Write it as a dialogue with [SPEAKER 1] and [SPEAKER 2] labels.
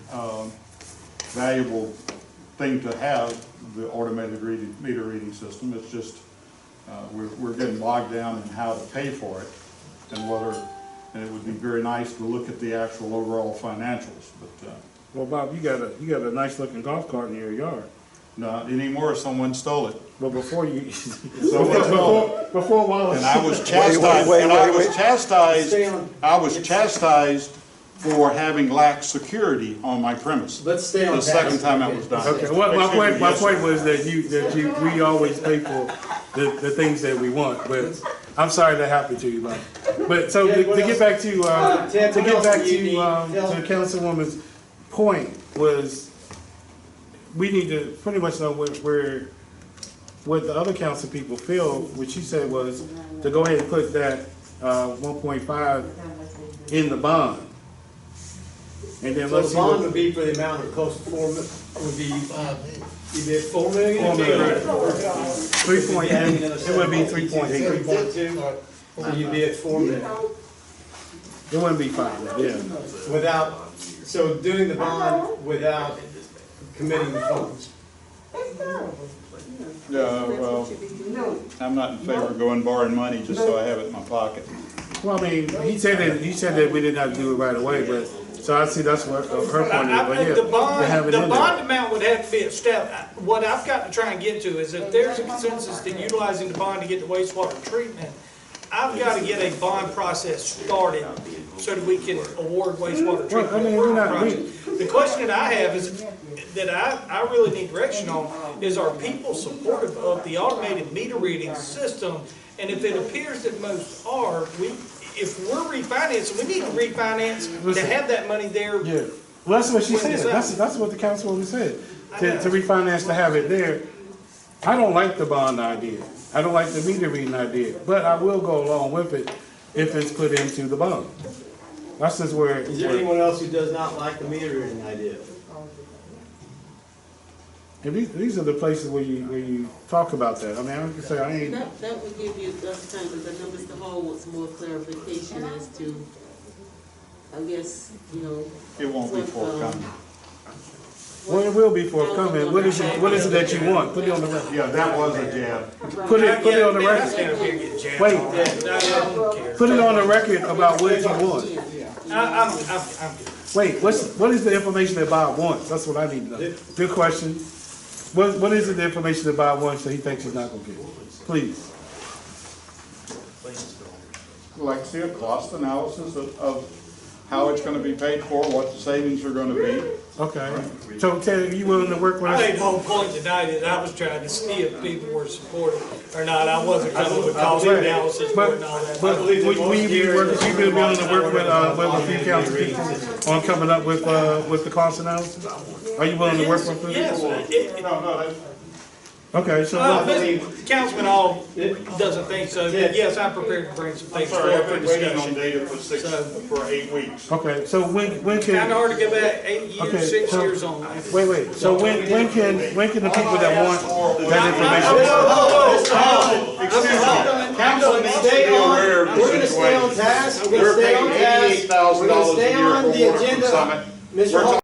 [SPEAKER 1] um, valuable thing to have, the automated reading, meter reading system. It's just, uh, we're, we're getting bogged down in how to pay for it and whether, and it would be very nice to look at the actual overall financials, but, uh,
[SPEAKER 2] Well, Bob, you got a, you got a nice looking golf cart in your yard.
[SPEAKER 1] not anymore, someone stole it.
[SPEAKER 2] But before you,
[SPEAKER 1] Someone stole it.
[SPEAKER 2] before, before
[SPEAKER 1] And
[SPEAKER 2] Wallace,
[SPEAKER 1] I was
[SPEAKER 3] wait,
[SPEAKER 1] chastised,
[SPEAKER 3] wait,
[SPEAKER 1] and I
[SPEAKER 3] wait,
[SPEAKER 1] was
[SPEAKER 3] wait.
[SPEAKER 1] chastised,
[SPEAKER 4] Stay on.
[SPEAKER 1] I was chastised for having lax security on my premise.
[SPEAKER 4] Let's stay on
[SPEAKER 1] The second
[SPEAKER 4] task.
[SPEAKER 1] time that was done.
[SPEAKER 2] okay, well, my point, my
[SPEAKER 1] Yes, sir.
[SPEAKER 2] point was that you, that you, we always pay for the, the things that we want, but I'm sorry that happened to you, Bob. But so to
[SPEAKER 4] Ted, what
[SPEAKER 2] to get
[SPEAKER 4] else?
[SPEAKER 2] back to, uh, to
[SPEAKER 4] Ted, what
[SPEAKER 2] get
[SPEAKER 4] else
[SPEAKER 2] back
[SPEAKER 4] do you need?
[SPEAKER 2] to, um, to
[SPEAKER 4] Tell-
[SPEAKER 2] Councilwoman's point was, we need to pretty much know where, where, what the other council people feel, what she said was to go ahead and put that, uh, one point five in the bond. And then
[SPEAKER 4] So
[SPEAKER 2] let's
[SPEAKER 4] the
[SPEAKER 2] see
[SPEAKER 4] bond
[SPEAKER 2] what.
[SPEAKER 4] would be for the amount of close to four, mil- would be, uh, either four million or
[SPEAKER 2] Four million. Three point,
[SPEAKER 4] Yeah,
[SPEAKER 2] eight.
[SPEAKER 4] the other
[SPEAKER 2] it would be
[SPEAKER 4] side.
[SPEAKER 2] three point eight,
[SPEAKER 4] Three point two, so you'd be at four million.
[SPEAKER 2] it wouldn't be five, yeah.
[SPEAKER 4] Without, so doing the bond without committing the funds.
[SPEAKER 1] Yeah, well, I'm not in favor of going borrowing money just so I have it in my pocket.
[SPEAKER 2] Well, I mean, he said that, he said that we did not do it right away, but, so I see that's what, of her point,
[SPEAKER 5] I-
[SPEAKER 2] of view,
[SPEAKER 5] I
[SPEAKER 2] but yeah.
[SPEAKER 5] think the
[SPEAKER 2] to have
[SPEAKER 5] bond,
[SPEAKER 2] it
[SPEAKER 5] the
[SPEAKER 2] in there.
[SPEAKER 5] bond amount would have to be established. What I've got to try and get to is if there's a consensus to utilizing the bond to get the wastewater treatment, I've got to get a bond process started so that we can award wastewater
[SPEAKER 2] Well, I mean,
[SPEAKER 5] treatment.
[SPEAKER 2] we're not- we-
[SPEAKER 5] project. The question that I have is, that I, I really need direction on, is are people supportive of the automated meter reading system? And if it appears that most are, we, if we're refinancing, we need to refinance to
[SPEAKER 2] Listen.
[SPEAKER 5] have that money there
[SPEAKER 2] Yeah, well, that's what she
[SPEAKER 5] When
[SPEAKER 2] said,
[SPEAKER 5] is that?
[SPEAKER 2] that's, that's what the councilwoman said, to,
[SPEAKER 5] know.
[SPEAKER 2] to refinance to have it there. I don't like the bond idea, I don't like the meter reading idea, but I will go along with it if it's put into the bond. That's just where.
[SPEAKER 4] Is there anyone else who does not like the metering idea?
[SPEAKER 2] And these, these are the places where you, where you talk about that, I mean, I can say, I ain't,
[SPEAKER 6] That, that would give you uh, enough time, because I know Mr. Hall wants more clarification as to, I guess, you know.
[SPEAKER 1] It won't be
[SPEAKER 6] what, um,
[SPEAKER 1] forthcoming.
[SPEAKER 2] well, it will be forthoming, what is it, what is it that you want, put it on the record.
[SPEAKER 1] Yeah, that was a jab.
[SPEAKER 2] Put it, put it on the
[SPEAKER 5] Yeah, that's
[SPEAKER 2] record,
[SPEAKER 5] gonna be a good jam.
[SPEAKER 2] wait,
[SPEAKER 5] No, I don't care.
[SPEAKER 2] put it on the record about what you want.
[SPEAKER 5] I, I'm, I'm, I'm good.
[SPEAKER 2] Wait, what's, what is the information that Bob wants? That's what I need to know. Good question. What, what is it the information that Bob wants that he thinks he's not gonna get? Please.
[SPEAKER 1] Like, see a cost analysis of, of how it's gonna be paid for, what the savings are gonna be.
[SPEAKER 2] Okay. So Ted, are you willing to work with
[SPEAKER 5] I think
[SPEAKER 2] us?
[SPEAKER 5] the whole point tonight is I was trying to see if people were supportive or not. I wasn't coming with cost analysis
[SPEAKER 2] But,
[SPEAKER 5] and all that.
[SPEAKER 2] but will
[SPEAKER 4] believe that
[SPEAKER 2] will you be
[SPEAKER 4] most
[SPEAKER 2] working, you be willing to work with, uh, with a few
[SPEAKER 4] Automated
[SPEAKER 2] council
[SPEAKER 4] reading
[SPEAKER 2] people on coming up with, uh, with the cost analysis? Are you willing to work with them?
[SPEAKER 5] Yes, it-
[SPEAKER 1] No, no, that's.
[SPEAKER 2] Okay, so,
[SPEAKER 5] uh,
[SPEAKER 2] what-
[SPEAKER 5] Mr. Councilman Hall doesn't think so, but yes, I'm prepared to bring some
[SPEAKER 1] I'm
[SPEAKER 5] things
[SPEAKER 1] sorry,
[SPEAKER 5] forward
[SPEAKER 1] I've
[SPEAKER 5] for
[SPEAKER 1] been waiting on
[SPEAKER 5] discussion.
[SPEAKER 1] data for six, for eight weeks.
[SPEAKER 2] okay, so when, when can?
[SPEAKER 5] Kinda hard to go back eight
[SPEAKER 2] Okay,
[SPEAKER 5] years, six
[SPEAKER 2] so-
[SPEAKER 5] years on that.
[SPEAKER 2] Wait, wait, so when, when can, when can the people that want that information? Oh!
[SPEAKER 1] Council needs to be aware of the
[SPEAKER 4] We're gonna stay on
[SPEAKER 1] situation.
[SPEAKER 4] task, we're
[SPEAKER 1] We're
[SPEAKER 4] gonna stay on
[SPEAKER 1] paying eighty-eight
[SPEAKER 4] task,
[SPEAKER 1] thousand
[SPEAKER 4] we're gonna
[SPEAKER 1] dollars a
[SPEAKER 4] stay
[SPEAKER 1] year
[SPEAKER 4] on
[SPEAKER 1] for
[SPEAKER 4] the
[SPEAKER 1] water from
[SPEAKER 4] agenda.
[SPEAKER 1] Summit.
[SPEAKER 4] Mr.
[SPEAKER 1] We're
[SPEAKER 4] Hall-